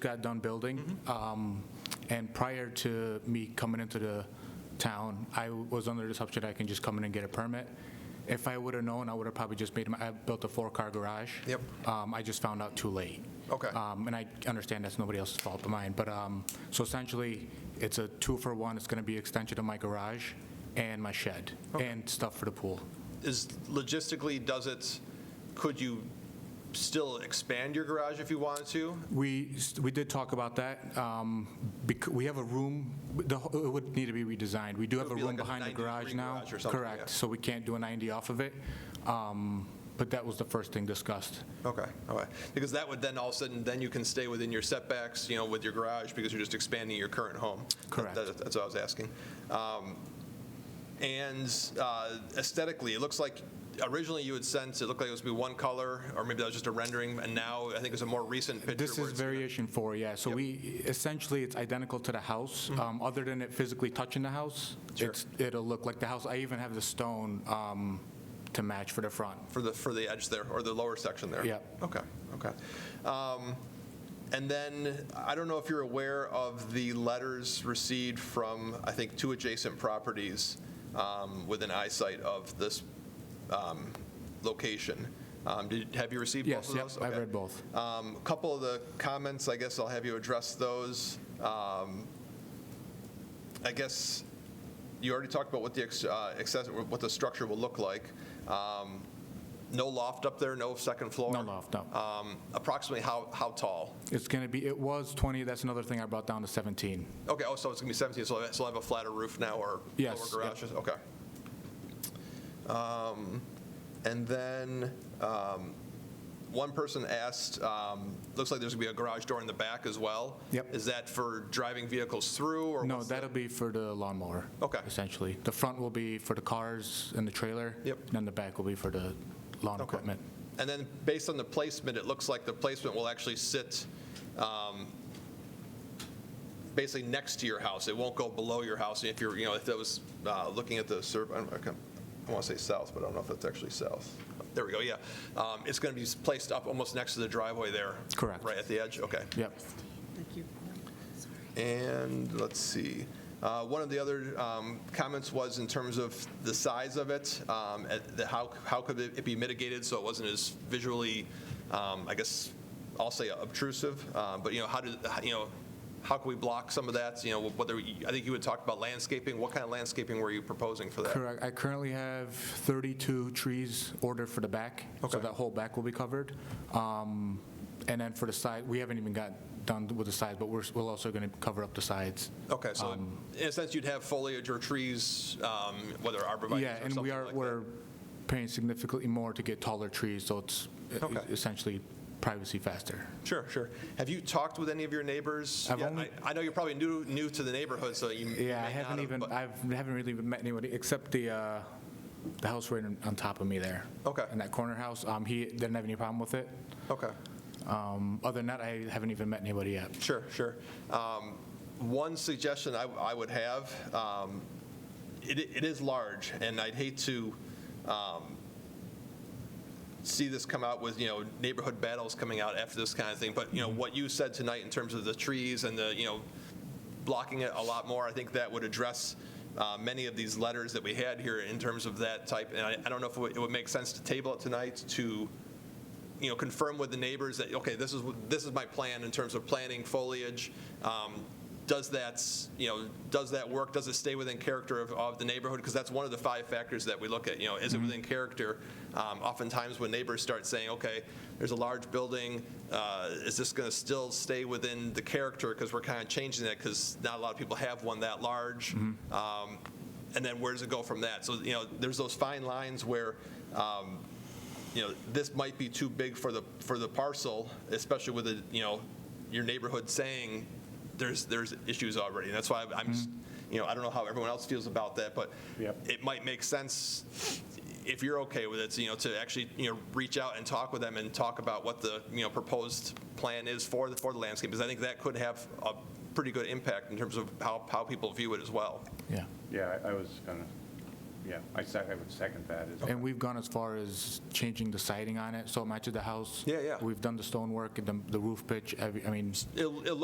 got done building. Mm-hmm. Um, And prior to me coming into the town, I was under the assumption I can just come in and get a permit. If I would have known, I would have probably just made, my- I built a four-car garage. Yep. Um, I just found out too late. Okay. Um, And I understand that's nobody else's fault but mine, but, um, so essentially, it's a two-for-one. It's going to be extension of my garage and my shed and stuff for the pool. Is, logistically, does it, could you still expand your garage if you wanted to? We, we did talk about that. um, bec- We have a room, the wh- it would need to be redesigned. We do have a would be room like a behind the 90 garage degree now. garage or something, yeah. Correct, so we can't do a 90 off of it. Um, But that was the first thing discussed. Okay, all right. Because that would then all of a sudden, then you can stay within your setbacks, you know, with your garage, because you're just expanding your current home. Correct. That- That's what I was asking. Um, And uh, aesthetically, it looks like, originally you had sent, it looked like it was gonna be one color, or maybe that was just a rendering, and now I think there's a more recent picture. This where is it's gonna- variation four, yeah. So Yep. Mm-hmm. we, essentially, it's identical to the house. um, Other than it physically touching the house, Sure. it's, it'll look like the house. I even have the stone um, to match for the front. For the, for the edge there, or the lower section there? Yeah. Okay, okay. Um, And then, I don't know if you're aware of the letters received from, I think, two adjacent properties um, within eyesight of this um, location. Um, did- Have you received both Yes, of yep, those? I've Okay. read both. Um, A Couple of the comments, I guess I'll have you address those. Um, I guess you already talked about what the ex- uh, access, what the structure will look like. Um, No loft up there, no second floor? No loft, no. Um, Approximately how, how tall? It's going to be, it was 20, that's another thing I brought down to 17. Okay, oh, so it's going to be 17, so it'll have a flatter roof now or lower Yes, yep. garages? Okay. Um, And then, um, one person asked, um, looks like there's going to be a garage door in the back as well? Yep. Is that for driving vehicles through or? No, what's the- that'll be for the lawnmower. Okay. Essentially. The front will be for the cars and the trailer. Yep. And then the back will be for the lawn Okay. equipment. And then, based on the placement, it looks like the placement will actually sit um, basically next to your house. It won't go below your house. If you're, you know, if that was uh, looking at the survey, I don't- I can't- I want to say south, but I don't know if that's actually south. There we go, yeah. Um, It's going to be placed up almost next to the driveway there. Correct. Right at the edge, okay. Yep. Thank you. Sorry. And let's see, Uh, one of the other um, comments was in terms of the size of it, um, at the- how how could it be mitigated so it wasn't as visually, um, I guess, I'll say obtrusive, uh, but, you know, how did, you know, how can we block some of that, you know, whether, I think you had talked about landscaping, what kind of landscaping were you proposing for that? Correct. I currently have 32 trees ordered for the back. Okay. So that whole back will be covered. Um, And then for the side, we haven't even got done with the sides, but we're, we're also going to cover up the sides. Okay, so Um, in a sense, you'd have foliage or trees, um, whether arborvitae Yeah, or and something we are, like that. we're paying significantly more to get taller trees, so it's uh, Okay. essentially privacy faster. Sure, sure. Have you talked with any of your neighbors? I've yet? only- I, I know you're probably new, new to the neighborhood, so you Yeah, I you may not haven't have, even, but- I haven't really even met anybody, except the, uh, the house right on- on top of me there. Okay. In that corner house, um, he didn't have any problem with it. Okay, Um, Other than that, I haven't even met anybody yet. sure, sure. Um, One suggestion I, I would have, um, it, it is large, and I'd hate to um, see this come out with, you know, neighborhood battles coming out after this kind of thing, but, you know, what you said tonight in terms of the trees and the, you know, blocking it a lot more, I think that would address uh, many of these letters that we had here in terms of that type, and I, I don't know if it would- it would make sense to table it tonight to, you know, confirm with the neighbors that, okay, this is, what- this is my plan in terms of planting foliage. Um, Does that, you know, does that work? Does it stay within character of, of the neighborhood? Because that's one of the five factors that we look at, you know, is it within character? Um, Oftentimes when neighbors start saying, okay, there's a large building, uh, is this going to still stay within the character? Because we're kind of changing that because not a lot of people have one that large. Um, And then where does it go from that? So, you know, there's those fine lines where, um, you know, this might be too big for the, for the parcel, especially with the, you know, your neighborhood saying there's, there's issues already. And that's why I'm- I'm, just- you know, I don't know how everyone else feels about that, but Yep. it might make sense if you're okay with it, you know, to actually, you know, reach out and talk with them and talk about what the, you know, proposed plan is for the, for the landscape, because I think that could have a pretty good impact in terms of how, how people view it as well. Yeah. Yeah, I I was gonna yeah, I sec- I would second that. as- And we've gone as far as changing the siding on it, so matches the house. Yeah, yeah. We've done the stonework and the the roof pitch, every- I mean. It, it